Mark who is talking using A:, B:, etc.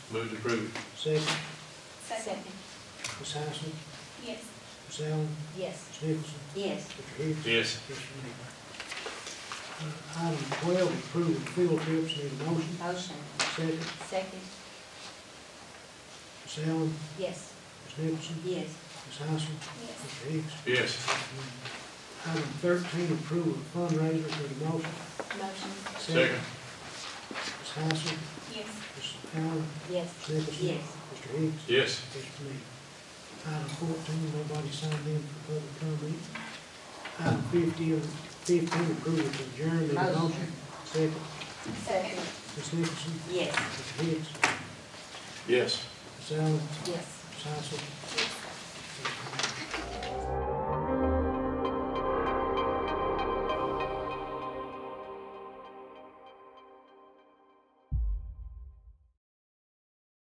A: Move to approve.
B: Second,
C: Second.
B: Ms. Hyson,
C: Yes.
B: Ms. Allen,
C: Yes.
B: Ms. Nicholson,
D: yes,
B: Mr. Hicks.
A: Yes.
B: Yes, ma'am. Uh, Item twelve, approve field trips, need a motion.
D: motion,
B: Second,
C: Second.
B: Ms. Allen,
C: Yes.
B: Ms. Nicholson,
D: yes,
B: Ms. Hyson,
C: Yes.
B: Mr. Hicks.
A: Yes.
B: Item thirteen, approval of fundraiser for the motion.
C: Motion.
A: Second.
B: Ms. Hyson,
C: Yes.
B: Ms. Allen,
C: Yes.
B: Ms. Nicholson.
D: Yes.
B: Mr. Hicks.
A: Yes.
B: Yes, ma'am. Item fourteen, nobody signed in for public comment. Item fifteen, uh, fifteen, approval to adjourn, need a motion.
D: Motion.
B: Second,
C: Second.
B: Ms. Nicholson,
D: yes.
B: Mr. Hicks,
A: Yes.
B: Ms. Allen,
C: Yes.
B: Ms. Hyson,
C: Yes.